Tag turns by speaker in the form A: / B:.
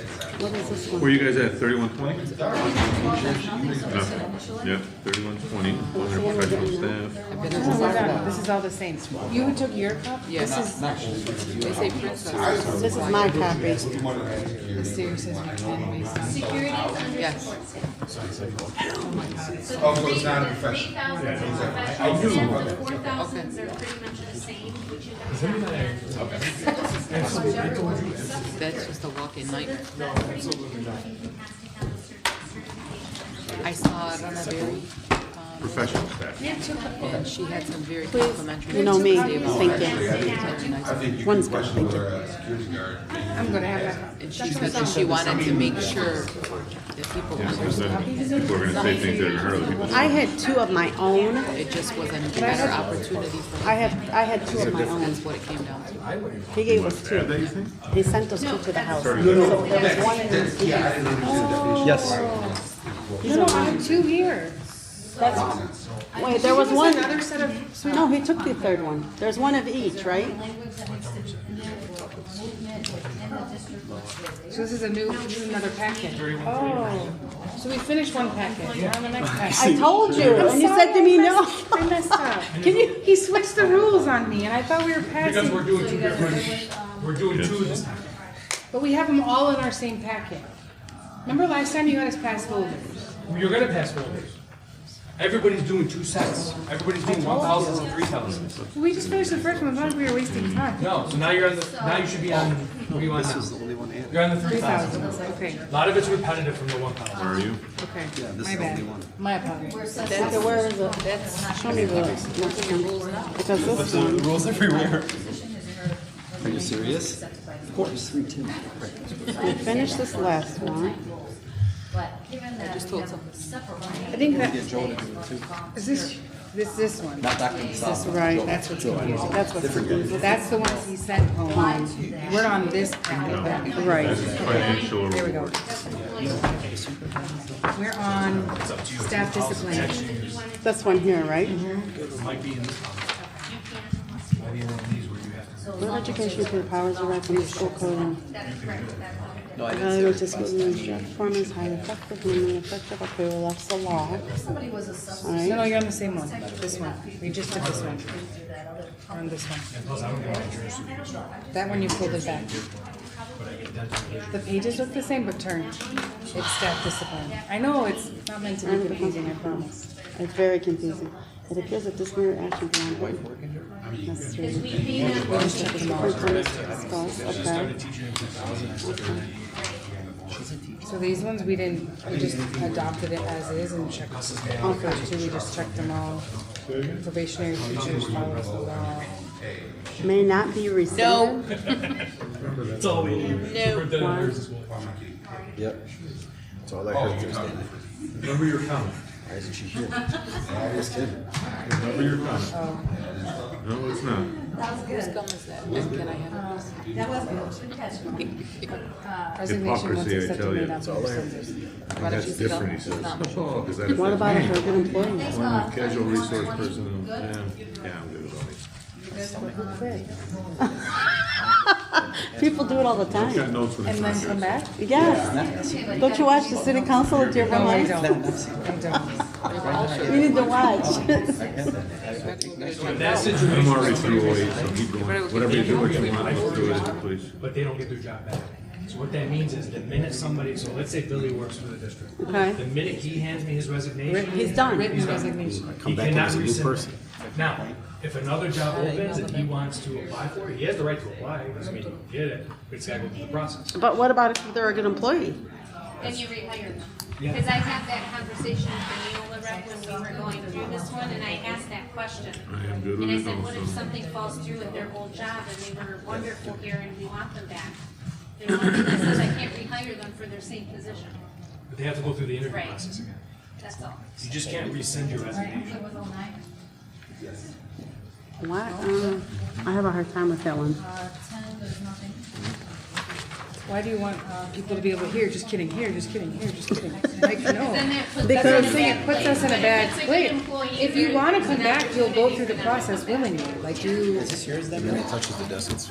A: is this one?
B: Where you guys at, thirty-one twenty? Yeah,
A: Yeah.
B: thirty-one twenty, one hundred professional staff.
C: This is all-
D: This is all the same. You took your cup?
C: Yeah,
D: This is,
C: not, not. They say princess.
A: This is my copy.
C: The series says pretend based on.
E: Security is under
C: Yes.
E: support staff.
F: Oh, so it's not a
E: Three
F: professional.
E: thousand professional staff, the four thousands are pretty much the same, which you guys have. and this is what everyone is subsidized.
C: That's just a walk-in night.
E: That's that's pretty much everybody who has to have a certain certification.
C: I saw it on a very, um,
B: Professional staff.
C: and she had some very complimentary.
A: You know me,
C: things
A: thank
C: about
A: you.
C: it. Very nice.
F: I think you
A: One's
F: can
A: good,
F: question
A: thank you.
F: whether
G: uh,
F: a security guard.
D: I'm gonna have
C: And she said that she wanted to make sure that people
B: Yeah, because
C: understood.
B: then people are gonna say things that are hardly people.
A: I had two of my own.
C: It just wasn't a better opportunity for
A: I
C: her.
A: had, I had two of my own.
C: That's what it came down to.
A: He gave us
B: Add that,
A: two.
B: you think?
A: He sent us two to the house.
B: Sorry.
A: So
B: No,
A: there
B: no,
A: was one in
F: That's-
A: this.
F: Yeah, I didn't understand the definition.
H: Yes.
D: a, no, I have two here.
A: Wait, there was one.
D: Another set of
A: No, he took the third one. There's one of each, right?
E: Language that makes the, and then the movement and the district looks like
D: So this is a new, this is another packet. Oh, so we finished one packet, we're on the next packet.
A: I told you, and you said to me, no.
D: I messed up. Can you, he switched the rules on me and I thought we were
H: Because we're
D: passing,
H: doing two different, we're doing two this time.
D: but we have them all in our same packet. Remember last time you had us pass folders?
H: You're gonna pass folders. Everybody's doing two sets. Everybody's doing one thousands and three thousands.
D: We just finished the first one, I thought we were wasting time.
H: No, so now you're on the, now you should be on, what do you want now? This is the only one. You're on the three
D: Three thousand,
H: thousand.
D: okay,
H: A lot of it's repetitive from the one thousand.
B: Where are you?
D: okay. My bad, my apologies.
E: we're such.
A: Okay, where is it? Show me the, because this one.
G: Rules everywhere.
E: Position is in our-
G: Are you serious? Of course. Three, two.
A: We finished this last one.
E: But given that
C: just
E: we
C: told
E: have separate
D: I think that,
G: Get Joel to do it too.
D: is this, this, this one,
G: Not Dr. Masala.
A: Right,
G: Joel.
D: that's what's
G: Joel.
D: confusing, that's what's confusing. That's the ones he sent home. We're on this packet, back.
A: Right.
B: Financial
D: There we go.
B: reward.
D: We're on staff discipline.
A: This one here, right?
H: It might be in this one. Might be in one of these where you have to.
A: Board of Education for the powers derived from the school code. Uh,
G: No, I didn't say
A: Evaluate this school district performance, high effective, minimum effective, okay, well, that's the law.
E: Somebody was a substitute.
A: All
D: No, no,
A: right,
D: you're on the same one, this one. We just did this one. We're on this one. That one you pulled it back. The pages look the same but turned. It's staff discipline. I know, it's not meant to be confusing, I promise.
A: it's very confusing. It appears that this mere action beyond what necessary. Superintendent's discuss, okay.
D: So these ones, we didn't, we just adopted it as is and checked. On first two, we just checked them all. Probationary teachers follows the law.
A: May not be rescinded.
H: It's all we need. Superintendent, here's this one.
G: Yep. That's all I heard Thursday night.
H: Remember your comment.
G: Why isn't she here? I was kidding.
B: Remember your comment. No, it's not.
C: Whose gum is that? And can I have this?
D: Resignation once
B: Hypocrisy, I
D: accepted
B: tell
D: may
B: you.
D: not be rescinded.
C: Why don't you
B: That's
C: sit up?
B: different, he says. Oh,
C: It's not-
B: Is that a
A: What about a
B: thing?
A: hurt employee?
B: Well, Casual resource person, yeah, yeah, I'm good with all these.
A: People do it all the
B: I've got
A: time.
B: notes when it's
D: And
B: not
D: then come
B: good.
D: back?
A: Yes. Don't you watch the city council at your
D: No, Oh, I
A: home?
D: don't. I don't.
A: You need to watch.
H: In that situation,
B: I'm already through eight, so keep going. Whatever you do, what you want, let's do it, please.
H: but they don't get their job back. So what that means is the minute somebody, so let's say Billy works for the district.
A: Okay.
H: The minute he hands me his resignation.
A: He's done.
D: Written resignation.
H: He cannot rescind it. Now, if another job opens and he wants to apply for it, he has the right to apply, doesn't mean he can get it, but it's gotta go through the process.
A: But what about if they're a good employee?
E: Then you rehire them. Because I had that conversation with Neola Rec when we were going through this one, and I asked that question.
B: I am good with
E: And I
B: it
E: said, what if
B: also.
E: something falls through at their old job and they were wonderful here and we want them back? They're wonderful, I said, I can't rehire them for their same position.
H: But they have to go through the interview
E: Right.
H: process again.
E: That's all.
H: You just can't rescind your resignation.
A: Why? Um, I have a hard time with that one.
D: Why do you want uh, people to be able to hear, just kidding, here, just kidding, here, just kidding? Like, no.
E: Then that puts
D: That's
E: us
D: what I'm
E: in a
D: saying, it
E: bad
D: puts
E: place.
D: us in a
E: But
D: bad
E: if it's a good
D: place.
E: employee,
D: If you
E: there
D: wanna
E: is
D: come
E: an
D: back, you'll go
E: opportunity
D: through
E: for
D: the
E: them to
D: process
E: come back.
D: willingly, like you.
G: Touches the desk.